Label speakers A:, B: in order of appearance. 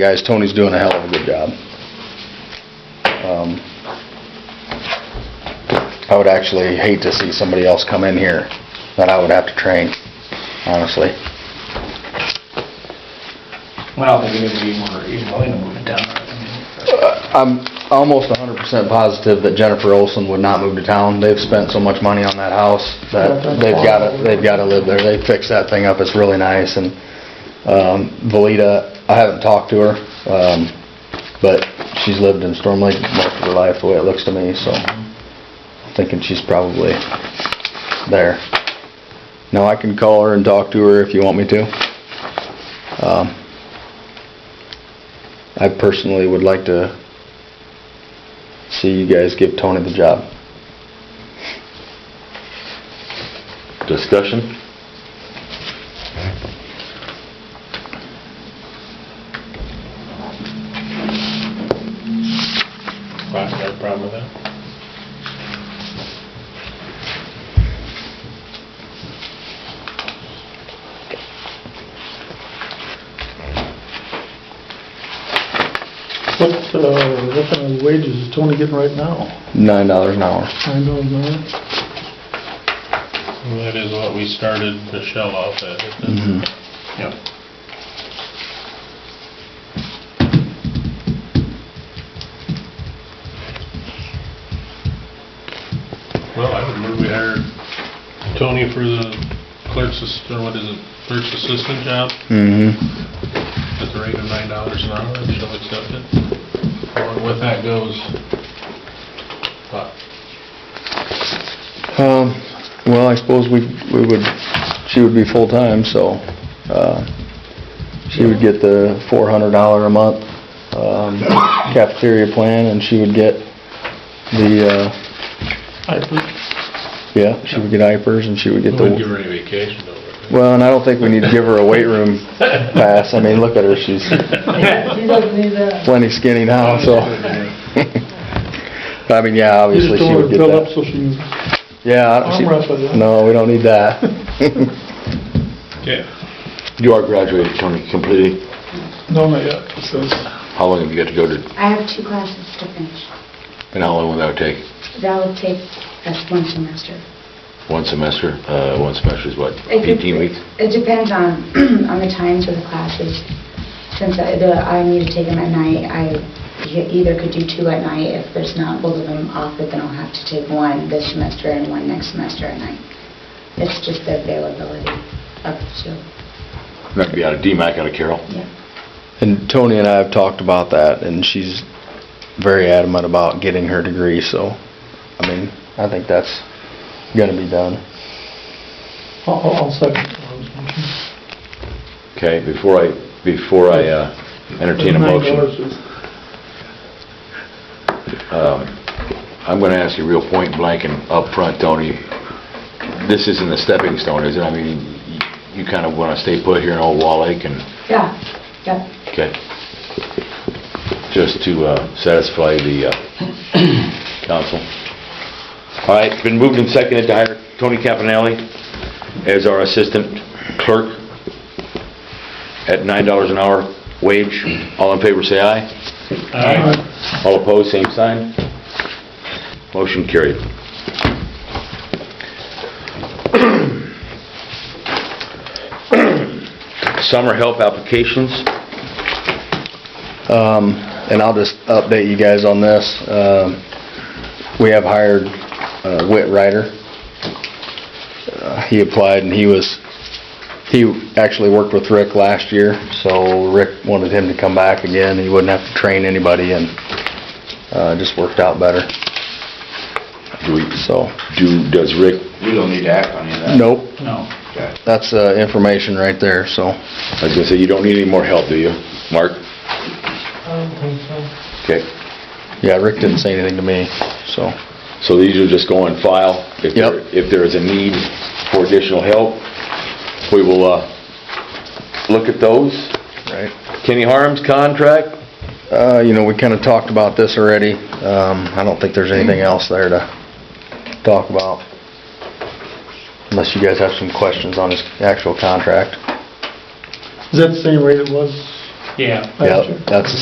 A: Guys, Tony's doing a hell of a good job. Um, I would actually hate to see somebody else come in here that I would have to train, honestly.
B: Well, I don't think anybody would be even willing to move it down. I mean,
A: I'm almost hundred percent positive that Jennifer Olson would not move to town. They've spent so much money on that house that they've gotta, they've gotta live there. They fixed that thing up, it's really nice, and, um, Valita, I haven't talked to her, um, but she's lived in Storm Lake most of her life, the way it looks to me, so thinking she's probably there. Now, I can call her and talk to her if you want me to. Um, I personally would like to see you guys give Tony the job.
C: Discussion?
D: Right, got a problem with that?
E: What, uh, what kind of wages is Tony getting right now?
A: Nine dollars an hour.
E: Nine dollars an hour?
D: Well, That is what we started Michelle off at. Mm-hmm.
A: Mm-hmm.
D: Yep. Well, I would move we hired Tony for the clerk's, assist- or what is it, clerk's assistant job
A: Mm-hmm.
D: at the rate of nine dollars an hour, and she'll accept it. Along with that goes, but
A: Um, well, I suppose we, we would, she would be full-time, so, uh, she would get the four hundred dollar a month, um, cafeteria plan, and she would get the, uh,
E: I think
A: yeah, she would get diapers, and she would
D: we
A: get
D: wouldn't give her
A: the,
D: any vacation over
A: well, and I don't think we need to give her a weight room pass. I mean, look at her, she's
D: there.
F: He doesn't need that.
A: plenty skinny now, so. I mean, yeah,
E: You just
A: obviously she
E: don't
A: would
E: want to
A: get
E: fill up
A: that.
E: so she can
A: Yeah. I don't-
E: arm wrestle you.
A: she- No, we don't need that.
D: Okay.
C: You are graduated, Tony, completely.
E: No, not yet, it says,
C: How long have you got to go to,
F: I have two classes to finish.
C: and how long will that take?
F: That will take us one semester.
C: One semester? Uh, one semester is what,
F: It could-
C: 18 weeks?
F: It depends on, on the times of the classes. Since I, the, I need to take them at night, I e- either could do two at night. If there's not both of them offered, then I'll have to take one this semester and one next semester at night. It's just the availability of two,
C: That'd be out of DMAC, out of Carroll?
F: yeah.
A: And Tony and I have talked about that, and she's very adamant about getting her degree, so, I mean, I think that's gonna be done.
E: I'll, I'll I'll second. Ron's motion.
C: Okay, before I, before I uh, entertain a
E: Nine
C: motion.
E: dollars is-
C: Um, I'm going to ask you real point blank and upfront, Tony. This isn't a stepping stone, is it? I mean, y- you kind of want to stay put here in Old Wall Lake and,
F: Yeah, yeah.
C: okay. Just to uh, satisfy the uh, council. All right, it's been moved and seconded to hire Tony Caponelli as our assistant clerk at $9 an hour wage. All in favor, say aye.
D: Aye.
C: All opposed, same sign. Motion carried. Summer help applications.
A: Um, and I'll just update you guys on this. Um, we have hired, uh, Whit Ryder. Uh, He applied and he was, he actually worked with Rick last year, so Rick wanted him to come back again. He wouldn't have to train anybody and, uh, it just worked out better,
C: Do we,
A: so.
C: do, does Rick,
G: We don't need to act on any of that.
A: Nope,
B: No.
G: Okay.
A: that's, uh, information right there, so.
C: I was gonna say, you don't need any more help, do you? Mark?
E: um,
C: Okay,
A: Yeah, Rick didn't say anything to me, so.
C: so these will just go on file. If there-
A: Yep.
C: If there is a need for additional help, we will, uh, look at those.
A: Right.
C: Kenny Harms contract,
A: Uh, you know, we kinda talked about this already. Um, I don't think there's anything else there to talk about. Unless you guys have some questions on his actual contract.
E: Is that the same rate it was
B: Yeah.
A: Yep, that's the